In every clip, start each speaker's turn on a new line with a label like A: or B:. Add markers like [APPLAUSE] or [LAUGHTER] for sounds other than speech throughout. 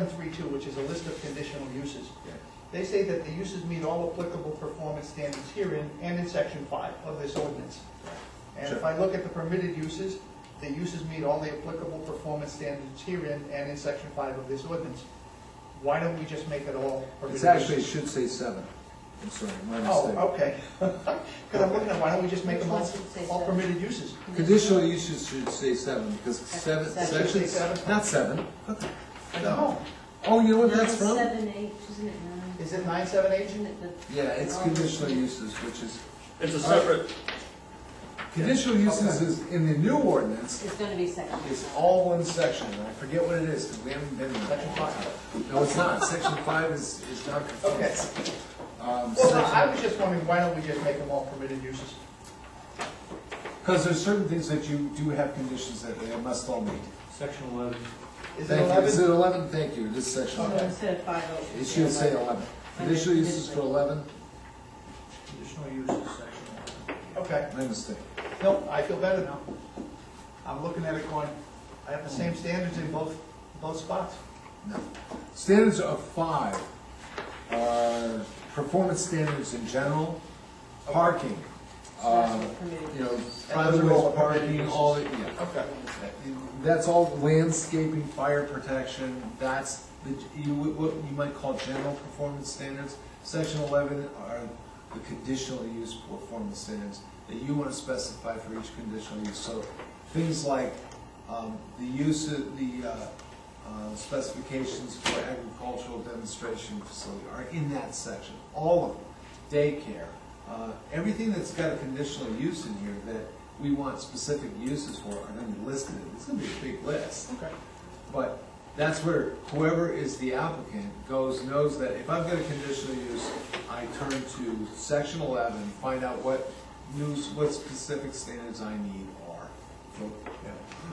A: 732, which is a list of conditional uses.
B: Yeah.
A: They say that the uses meet all applicable performance standards herein and in section five of this ordinance. And if
B: Sure.
A: I look at the permitted uses, the uses meet all the applicable performance standards herein and in section five of this ordinance. Why don't we just make it all permitted
B: It's actually, it
A: uses?
B: should say seven. I'm sorry, my mistake.
A: Oh, okay. [LAUGHS] Because I'm looking at, why don't we just make them all,
C: Which ones would say
A: all
C: seven?
A: permitted uses?
B: Conditional uses should say seven, because seven,
C: Section
B: section,
A: say seven.
B: not seven. What the-
A: I
B: No.
A: don't know.
B: Oh, you know what that's
C: Nine,
B: from?
C: seven, eight, isn't it nine?
A: Is it nine, seven, eight?
C: Isn't it the-
B: Yeah, it's
C: Oh.
B: conditional uses, which is,
D: It's a separate,
B: conditional uses is, in the new ordinance,
C: It's gonna be section.
B: is all one section. I forget what it is, because we haven't been there.
A: Section five.
B: No, it's not. Section five is, is not conformance. Um,
A: Well, no, I
B: section-
A: was just wondering, why don't we just make them all permitted uses?
B: Because there's certain things that you do have conditions that they must all meet.
E: Section eleven.
A: Is it
B: Thank you. Is it
A: eleven?
B: eleven? Thank you, this section.
C: So
B: eleven.
C: instead of five, oh, it
B: It should say eleven. Conditional uses for eleven,
E: Conditional use is section eleven.
A: Okay,
B: my mistake.
A: no, I feel better now. I'm looking at it going, I have the same standards in both, both spots.
B: No. Standards of five are performance standards in general, parking, uh,
C: That's permitted.
B: you know,
A: those
B: private
A: are all
B: ways,
A: permitted
B: parking,
A: uses.
B: all, that- yeah.
A: Okay.
B: That's all landscaping, fire protection, that's the, you, what you might call general performance standards. Section eleven are the conditional use performance standards that you wanna specify for each conditional use. So things like, um, the use of, the, uh, uh, specifications for agricultural demonstration facility are in that section, all of them. Daycare, uh, everything that's got a conditional use in here that we want specific uses for are gonna be listed. It's gonna be a big list.
A: Okay.
B: But that's where whoever is the applicant goes, knows that if I've got a conditional use, I turn to section eleven, find out what news, what specific standards I need are for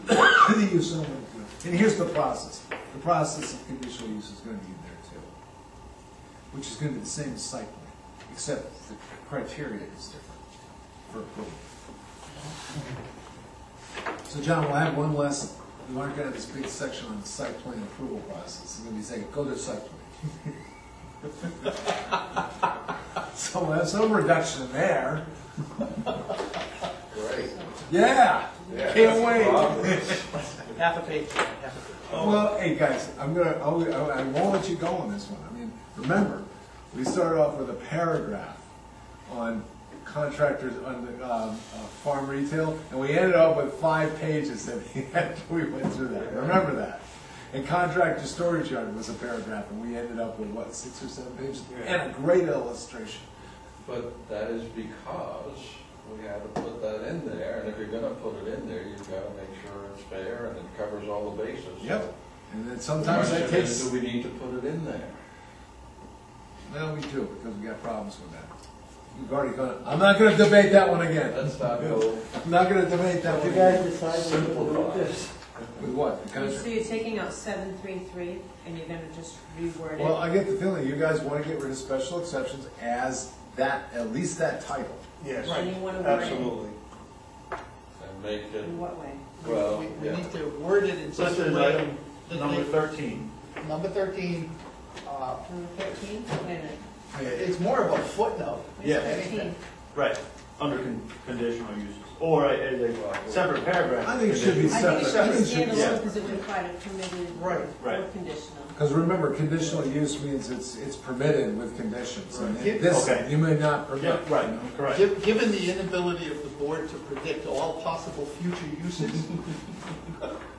B: [COUGHS] the use I'm gonna do. And here's the process. The process of conditional use is gonna be in there too. Which is gonna be the same as site plan, except the criteria is different for approval. So John, we'll have one lesson. We aren't gonna have this big section on the site plan approval process. It's gonna be saying, go to site plan. [LAUGHS] So we'll have some reduction there.
D: right?
B: Yeah, can't wait.
E: Half a page, half a page.
B: Well, hey, guys, I'm gonna, I'll- I I won't let you go on this one. I mean, remember, we started off with a paragraph on contractors, on the, um, uh, farm retail, and we ended up with five pages that we [LAUGHS] had- we went through that. Remember that? And contractor storage yard was a paragraph, and we ended up with, what, six or seven pages?
E: Yeah.
B: And a great illustration.
D: But that is because we had to put that in there, and if you're gonna put it in there, you've gotta make sure it's fair and it covers all the bases.
B: Yep. And then
D: The
B: sometimes that
D: question is,
B: takes,
D: Do we need to put it in there?
B: well, we do, because we got problems with that. We've already gone, I'm not gonna debate that one again.
D: Let's not go
B: I'm not gonna debate that one.
D: simplify.
B: With what? The
C: So
B: country?
C: you're taking out seven, three, three, and you're gonna just reword
B: Well,
C: it?
B: I get the feeling you guys wanna get rid of special exceptions as that, at least that title.
A: Yes.
C: And you wanna word it,
E: Absolutely.
D: And make it,
C: in what way?
D: well,
A: We we
D: yeah.
A: need to word it in such
E: Such
A: a
E: as
A: way.
E: item
A: that
E: number thirteen.
A: they- Number thirteen, uh,
C: Number thirteen, wait a minute.
A: it's more of a footnote. than
E: Yeah.
A: anything.
C: Thirteen.
E: Right, under con- conditional uses, or a- as a separate paragraph.
B: I think it should be
C: I think
B: separate.
C: it should be
B: I think it should be-
C: standalone because it would apply to permitted
A: Right,
E: right.
C: or conditional.
B: Cause remember, conditional use means it's, it's permitted with conditions. And
A: Right.
B: this,
E: Okay.
B: you may not
E: Yeah,
B: permit. you know?
E: right, correct.
A: Gi- Given the inability of the board to predict all possible future uses,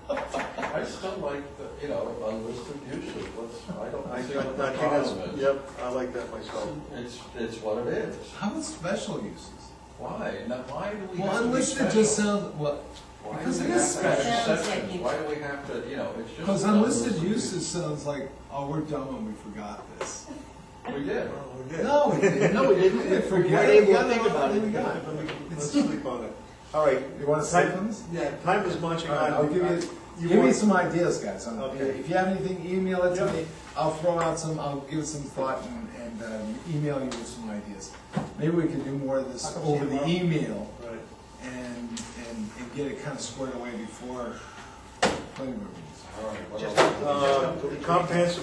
D: I still like the, you know, unlisted uses, let's, I
F: I
D: don't see
F: think
D: what the
F: that's,
D: problem is.
F: yep, I like that myself.
D: It's, it's what it is.
B: How about special uses?
D: Why? Now, why do we have to be special?
B: Well, unlisted just sounds, well,
D: Why do
B: Because
D: we
B: it
D: have
B: is
D: to have
C: special.
D: exceptions? Why do we have to, you know, it's just.
B: cause unlisted uses sounds like, oh, we're dumb and we forgot
D: [LAUGHS]
B: this.
D: We did.
B: Oh, No, we didn't.
A: No, we didn't.
D: [LAUGHS]
B: We forget
A: We
B: it.
A: didn't think about it.
B: We got it.
F: Let's sleep on it. All right.
B: You wanna sleep on this?
F: Yeah, time is marching
B: All
F: on.
B: right, I'll give you,
F: You
B: give me
F: want-
B: some ideas, guys. on-
F: Okay.
B: If you have anything, email it to
F: Yeah.
B: me. I'll throw out some, I'll give it some thought and, and um, email you with some ideas. Maybe we can do more of
A: I'll
B: this
A: come see
B: over
A: you
B: the
A: tomorrow.
B: email
F: Right.
B: and, and, and get it kind of squared away before planning board meetings.
G: All right, what
H: Just-
G: else?
A: Uh, Comprehensive